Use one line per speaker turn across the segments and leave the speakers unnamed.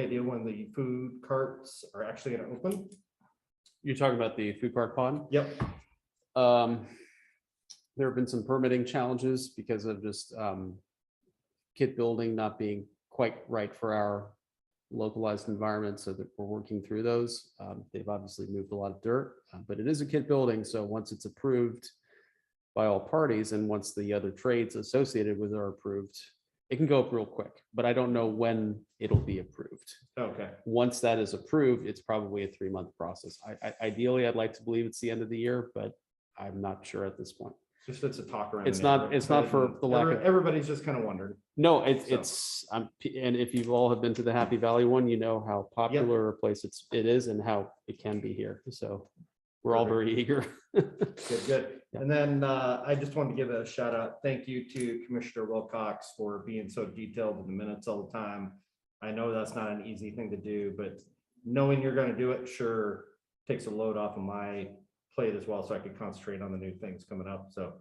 idea when the food carts are actually gonna open?
You're talking about the food park pond?
Yep,
Um, there have been some permitting challenges because of just, um, kit building not being quite right for our localized environment, so that we're working through those. Um, they've obviously moved a lot of dirt, uh, but it is a kit building, so once it's approved by all parties and once the other trades associated with it are approved, it can go up real quick, but I don't know when it'll be approved
okay,
once that is approved, it's probably a three-month process. I, I, ideally, I'd like to believe it's the end of the year, but I'm not sure at this point.
just it's a talk around. the
It's not-
neighborhood.
it's not for the lack of-
Every- Everybody's just kind of wondering.
No, it's,
So-
it's, um, and if you've all have been to the Happy Valley one, you know how popular a place it's, it is and how it can be here. So we're all very eager.
Good, good.
Yeah.
And then uh, I just wanted to give a shout out, thank you to Commissioner Wilcox for being so detailed in the minutes all the time. I know that's not an easy thing to do, but knowing you're gonna do it, sure, takes a load off of my plate as well, so I can concentrate on the new things coming up. So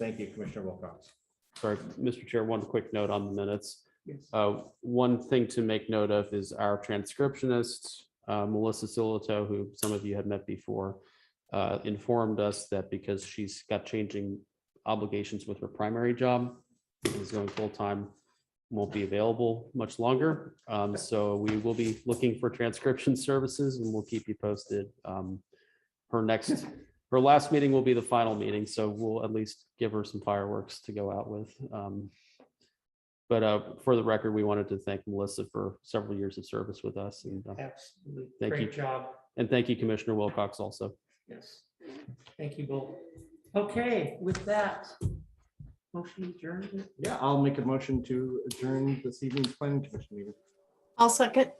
thank you, Commissioner Wilcox.
Sorry, Mr. Chair, one quick note on the minutes. Uh, One thing to make note of is our transcriptionist, uh, Melissa Silito, who some of you had met before, uh, informed us that because she's got changing obligations with her primary job, and is going full-time, won't be available much longer. Um, So we will be looking for transcription services and we'll keep you posted. Um, Her next, her last meeting will be the final meeting, so we'll at least give her some fireworks to go out with. Um, but uh, for the record, we wanted to thank Melissa for several years of service with us and, uh,
Absolutely.
Thank you.
Great job.
and thank you Commissioner Wilcox also.
Yes. Thank you both. Okay, with that, motion adjourned.
Yeah, I'll make a motion to adjourn this evening's planning commission meeting.
I'll second.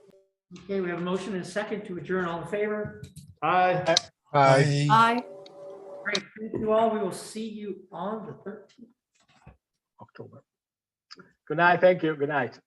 Okay, we have a motion and a second to adjourn. All in favor?
Aye.
Aye.
Aye.
Great. Thank you all. We will see you on the thirteenth.
October. Good night. Thank you. Good night.